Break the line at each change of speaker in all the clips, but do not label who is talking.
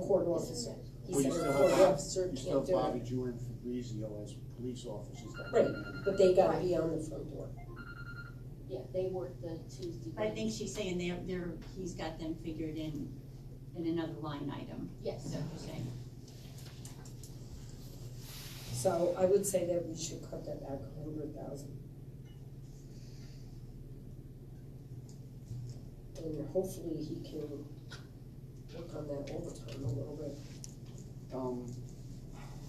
court officer. He
Well, you
said a
still
court
have Bob-
officer
You still
can't
have
do
Bobby
it.
Jew and Fabrizio as police officers. that-
Right, but they gotta be on the front door.
Yeah, they work the Tuesday.
I think she's saying they're, they're, he's got them figured in, in another line item, is
Yes,
that what you're saying?
So I would say that we should cut that back a hundred thousand. And hopefully he can work on that overtime a little bit.
Um,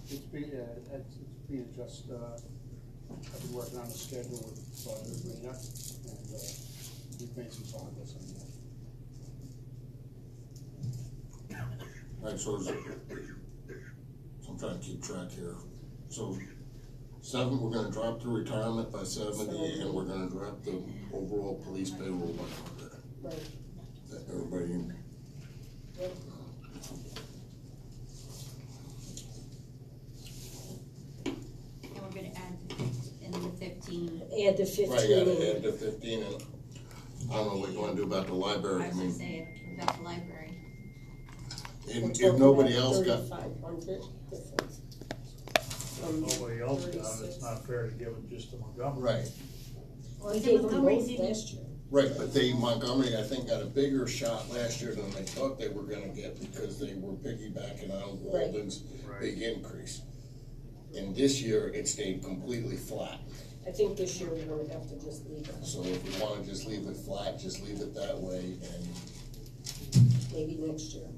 it's being, uh, it's it's being addressed, uh, I've been working on a schedule with Roger Rena, and, uh, we've made some progress on that.
Alright, so is, so I'm trying to keep track here. So seven, we're gonna drop the retirement by seventy and we're gonna drop the overall police payroll by hundred.
Right.
That everybody,
And we're gonna add in the fifteen,
Add the
right,
fifteen
gotta
in.
add the fifteen and I don't know what you wanna do about the library.
I
I
was gonna
mean,
say, about the library,
We're
if, if
talking
nobody
about
else got,
3,500 difference. Um, From
Nobody else got it,
36.
it's not fair to give it just to Montgomery.
right,
Well,
Is
he
it
gave them
Montgomery
both
didn't-
last year.
right, but they, Montgomery, I think, got a bigger shot last year than they thought they were gonna get because they were piggybacking on
Right.
Walden's
Right.
big increase. And this year, it stayed completely flat,
I think this year we're gonna have to just leave it,
so if we wanna just leave it flat, just leave it that way, and,
maybe next year.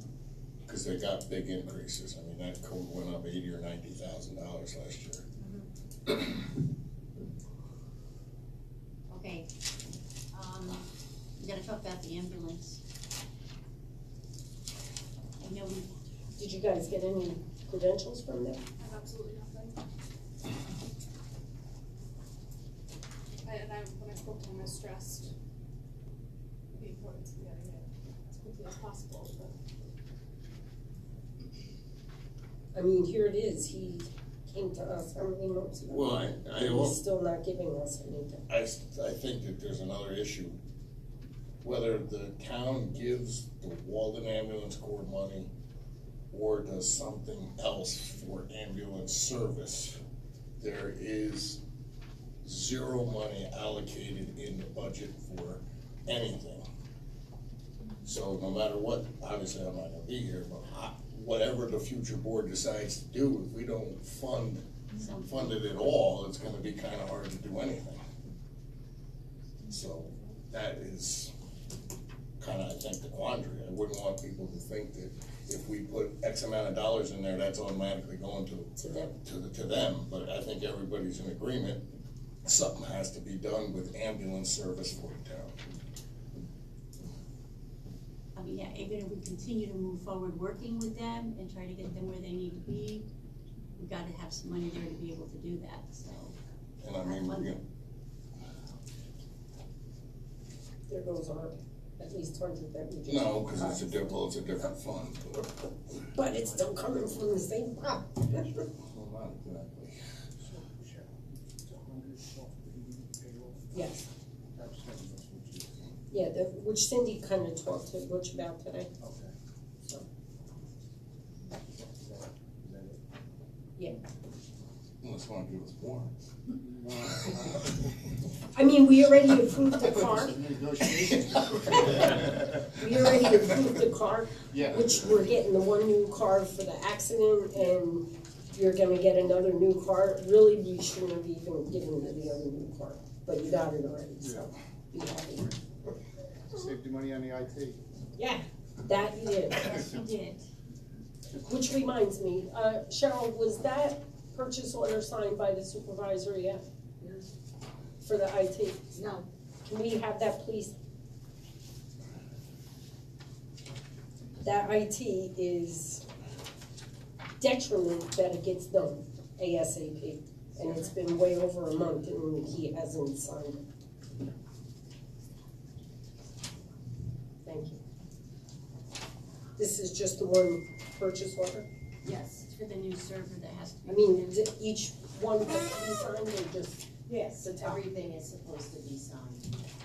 cause they got big increases, I mean, that code went up eighty or ninety thousand dollars last year.
okay. Um, we gotta talk about the ambulance. I know we,
Did you guys get any credentials from them?
I have absolutely nothing. I, and I, when I spoke to him, I stressed the importance of getting it as quickly as possible, but
I mean, here it is, he came to us how many months ago?
Well, I, I,
And
al-
He's still not giving us anything.
I, s- I think that there's another issue, whether the town gives the Walden Ambulance Corps money or does something else for ambulance service, there is zero money allocated in the budget for anything. So no matter what, obviously I'm not gonna be here, but I, whatever the future board decides to do, if we don't fund,
some,
fund it at all, it's gonna be kinda hard to do anything. So that is kinda, I think, the quandary. I wouldn't want people to think that if we put X amount of dollars in there, that's automatically going to,
To them.
to, the- to them. But I think everybody's in agreement, something has to be done with ambulance service for the town.
I mean, yeah, even if we continue to move forward working with them and try to get them where they need to be, we gotta have some money there to be able to do that, so.
And I mean, we're gonna,
There goes our, at least hundred that we just.
no, cause it's a different, it's a different fund.
But it's still coming from the same pot.
Well, not exactly.
It's a hundred twelve eighty payroll.
Yes,
That was something else, which is-
yeah, the, which Cindy kinda talked to Butch about today,
Okay.
so.
Is that- is that it?
Unless you wanna give us more.
No, I-
I mean, we already approved the card,
It's a negotiation.
we already approved the card,
Yeah.
Which we're getting the one new car for the accident and you're gonna get another new car. Really, we shouldn't have even given you the other new car, but you got it already, so be happy.
Saved you money on the IT.
Yeah, that you did.
Yes, you did.
Which reminds me, uh, Cheryl, was that purchase order signed by the supervisor yet? For the IT?
no,
Can we have that, please? That IT is detriment that it gets done ASAP. And it's been way over a month and he hasn't signed it. Thank you. This is just the one purchase order?
Yes, it's for the new server that has to be.
I mean, is it each one that he signed or just
yes,
the top?
everything is supposed to be signed.